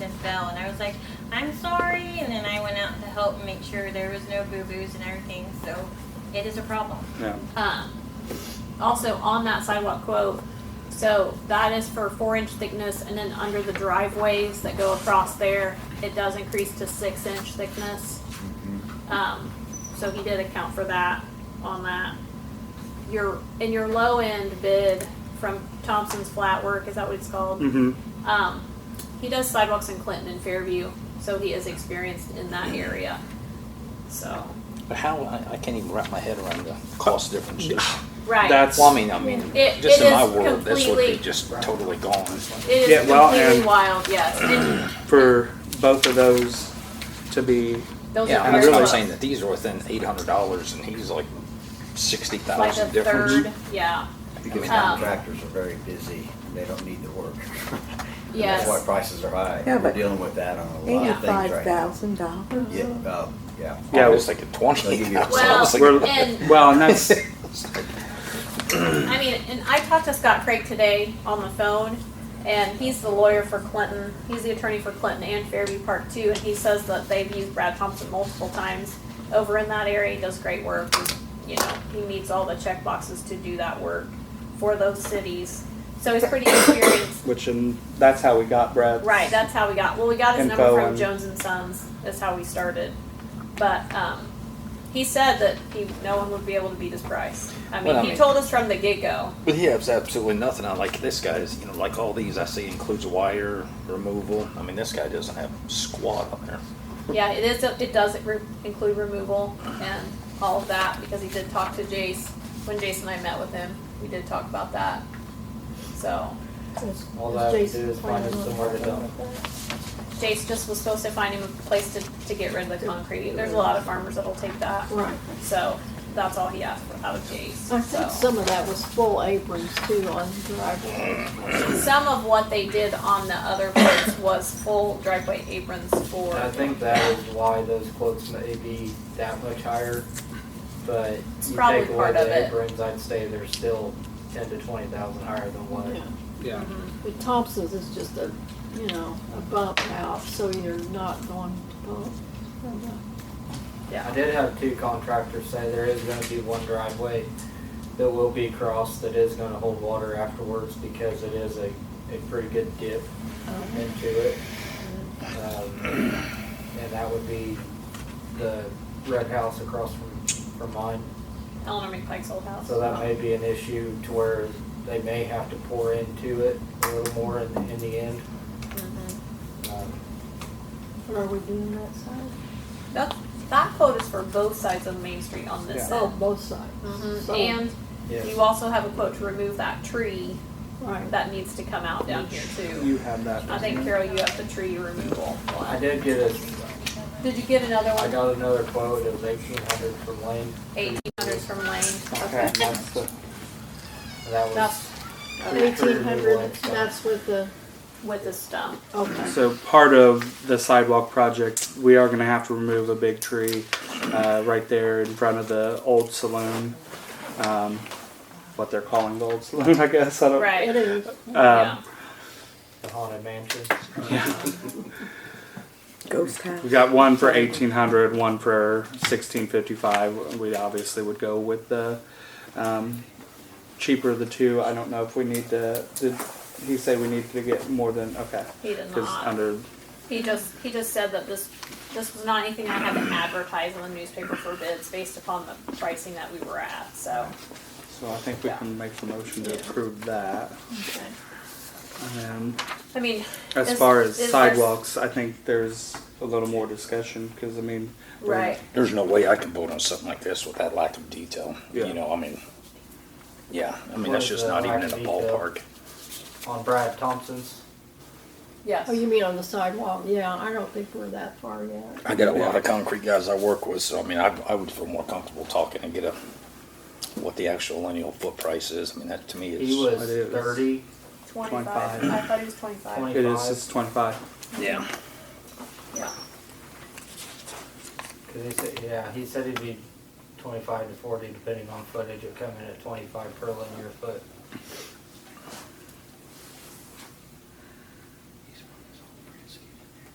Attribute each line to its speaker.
Speaker 1: fell, and I was like, I'm sorry. And then I went out to help and make sure there was no boo boos and everything. So it is a problem.
Speaker 2: Yeah.
Speaker 3: Um, also on that sidewalk quote, so that is for four inch thickness and then under the driveways that go across there, it does increase to six inch thickness.
Speaker 4: Mm-hmm.
Speaker 3: Um, so he did account for that on that. Your, in your low end bid from Thompson's Flat Work, is that what it's called?
Speaker 2: Mm-hmm.
Speaker 3: Um, he does sidewalks in Clinton and Fairview, so he is experienced in that area. So,
Speaker 4: But how, I, I can't even wrap my head around the cost differences.
Speaker 3: right.
Speaker 2: That's
Speaker 4: Well, I mean, I mean,
Speaker 3: It-
Speaker 4: just
Speaker 3: it
Speaker 4: in my
Speaker 3: is
Speaker 4: world, this would be
Speaker 3: completely-
Speaker 4: just totally gone.
Speaker 3: It is
Speaker 2: Yeah, well,
Speaker 3: completely
Speaker 2: and-
Speaker 3: wild, yes. And
Speaker 2: for both of those to be.
Speaker 3: those
Speaker 4: Yeah,
Speaker 3: are
Speaker 4: I'm
Speaker 3: very
Speaker 4: really
Speaker 3: close.
Speaker 4: saying that these are within eight hundred dollars and he's like sixty
Speaker 3: like a
Speaker 4: thousand difference.
Speaker 3: third. Yeah,
Speaker 4: Um,
Speaker 5: Because contractors are very busy, and they don't need the work. And
Speaker 3: Yes.
Speaker 5: That's why prices are high.
Speaker 6: Yeah,
Speaker 5: We're
Speaker 6: but
Speaker 5: dealing with that on a lot of things
Speaker 6: Eighty-five
Speaker 5: right now.
Speaker 6: thousand dollars.
Speaker 5: Yeah, um, yeah.
Speaker 2: Yeah,
Speaker 4: I was thinking
Speaker 5: They'll
Speaker 4: twenty
Speaker 5: give
Speaker 4: thousand.
Speaker 5: you a-
Speaker 4: I was
Speaker 2: Well,
Speaker 4: thinking-
Speaker 3: and-
Speaker 2: Well, and that's
Speaker 3: I mean, and I talked to Scott Craig today on the phone, and he's the lawyer for Clinton. He's the attorney for Clinton and Fairview Park too, and he says that they've used Brad Thompson multiple times over in that area. He does great work. He's- You know, he meets all the check boxes to do that work for those cities. So he's pretty experienced
Speaker 2: which and that's how we got Brad.
Speaker 3: Right, that's how we got. Well, we got his
Speaker 2: Info
Speaker 3: number from
Speaker 2: and-
Speaker 3: Jones and Sons. That's how we started. But um, he said that he no one would be able to beat his price. I mean,
Speaker 4: Well, I
Speaker 3: he
Speaker 4: mean-
Speaker 3: told us from the get go.
Speaker 4: But he has absolutely nothing. I like this guy's, you know, like all these I see includes wire removal. I mean, this guy doesn't have squat on there.
Speaker 3: Yeah, it is. It does re- include removal and all of that because he did talk to Jace when Jason and I met with him. We did talk about that. So
Speaker 7: All I have to do is find him somewhere to dump.
Speaker 3: Jace just was supposed to find him a place to, to get rid of the concrete. There's a lot of farmers that'll take that.
Speaker 6: Right.
Speaker 3: So that's all he asked for out of Jace. so.
Speaker 6: I think some of that was full aprons too on driveway.
Speaker 3: Some of what they did on the other quotes was full driveway aprons for,
Speaker 7: And I think that is why those quotes may be that much higher, but you
Speaker 3: probably
Speaker 7: take away
Speaker 3: part of
Speaker 7: the
Speaker 3: it.
Speaker 7: aprons, I'd say they're still ten to twenty thousand higher than what.
Speaker 6: Yeah. Mm-hmm.
Speaker 2: Yeah.
Speaker 6: But Thompson's is just a, you know, a bump out, so you're not going to bump.
Speaker 7: Yeah, I did have two contractors say there is gonna be one driveway that will be crossed that is gonna hold water afterwards because it is a, a pretty good dip into it. Um, And that would be the red house across from, from mine.
Speaker 3: Eleanor McPike's old house.
Speaker 7: So that may be an issue to where they may have to pour into it a little more in, in the end.
Speaker 3: Mhm.
Speaker 7: Um,
Speaker 6: Are we doing that side?
Speaker 3: That, that quote is for both sides of Main Street on this
Speaker 6: Oh,
Speaker 3: end.
Speaker 6: both sides.
Speaker 3: Mhm.
Speaker 6: So-
Speaker 3: And
Speaker 7: Yes.
Speaker 3: you also have a quote to remove that tree
Speaker 6: Right.
Speaker 3: that needs to come out down here too.
Speaker 2: You have that.
Speaker 3: I think Carol, you have the tree removal
Speaker 7: I
Speaker 3: one.
Speaker 7: did get a,
Speaker 3: Did you get another
Speaker 7: I
Speaker 3: one?
Speaker 7: got another quote, it was eighteen hundred from Lane,
Speaker 3: Eighteen hundreds from Lane.
Speaker 2: Okay, and that's the,
Speaker 7: and that was.
Speaker 3: That's
Speaker 7: pretty true
Speaker 6: Eighteen
Speaker 7: removal
Speaker 6: hundred,
Speaker 7: and stuff.
Speaker 6: that's with the,
Speaker 3: with the stump.
Speaker 6: okay.
Speaker 2: so part of the sidewalk project, we are going to have to remove a big tree uh, right there in front of the old saloon. Um, what they're calling the old saloon, I guess. I don't.
Speaker 6: It
Speaker 3: Right,
Speaker 6: is.
Speaker 2: Um,
Speaker 3: yeah.
Speaker 7: The haunted mansion.
Speaker 8: Ghost town.
Speaker 2: We got one for 1800, one for 1655. We obviously would go with the um, cheaper of the two. I don't know if we need to. Did he say we need to get more than okay?
Speaker 3: He did
Speaker 2: Because
Speaker 3: not.
Speaker 2: under
Speaker 3: He just, he just said that this, this was not anything I had to advertise in the newspaper for bids based upon the pricing that we were at, so.
Speaker 2: so I think we
Speaker 3: Yeah.
Speaker 2: can make the motion to approve that. Um,
Speaker 3: I mean.
Speaker 2: as
Speaker 3: is-
Speaker 2: far as
Speaker 3: is there-
Speaker 2: sidewalks, I think there's a little more discussion because I mean, we're-
Speaker 3: Right,
Speaker 4: There's no way I can vote on something like this with that lack of detail.
Speaker 2: Yeah.
Speaker 4: You know, I mean, yeah, I mean,
Speaker 7: What
Speaker 4: that's
Speaker 7: is
Speaker 4: just
Speaker 7: the
Speaker 4: not even
Speaker 7: lack
Speaker 4: in
Speaker 7: of
Speaker 4: a
Speaker 7: detail?
Speaker 4: ballpark.
Speaker 7: on Brad Thompson's.
Speaker 3: yes.
Speaker 6: Oh, you mean on the sidewalk? Yeah, I don't think we're that far yet.
Speaker 4: I got a lot of concrete guys I work with, so I mean, I, I would feel more comfortable talking and get a, what the actual lineal foot price is. I mean, that to me is.
Speaker 7: He
Speaker 2: It
Speaker 7: was
Speaker 2: is.
Speaker 7: thirty,
Speaker 3: Twenty-five,
Speaker 2: 25.
Speaker 3: I thought it was twenty-five,
Speaker 7: Twenty.
Speaker 2: it is it's 25.
Speaker 4: Yeah.
Speaker 3: yeah.
Speaker 7: cause he said, yeah, he said he'd be twenty-five to forty depending on footage, it'd come in at twenty-five per linear foot.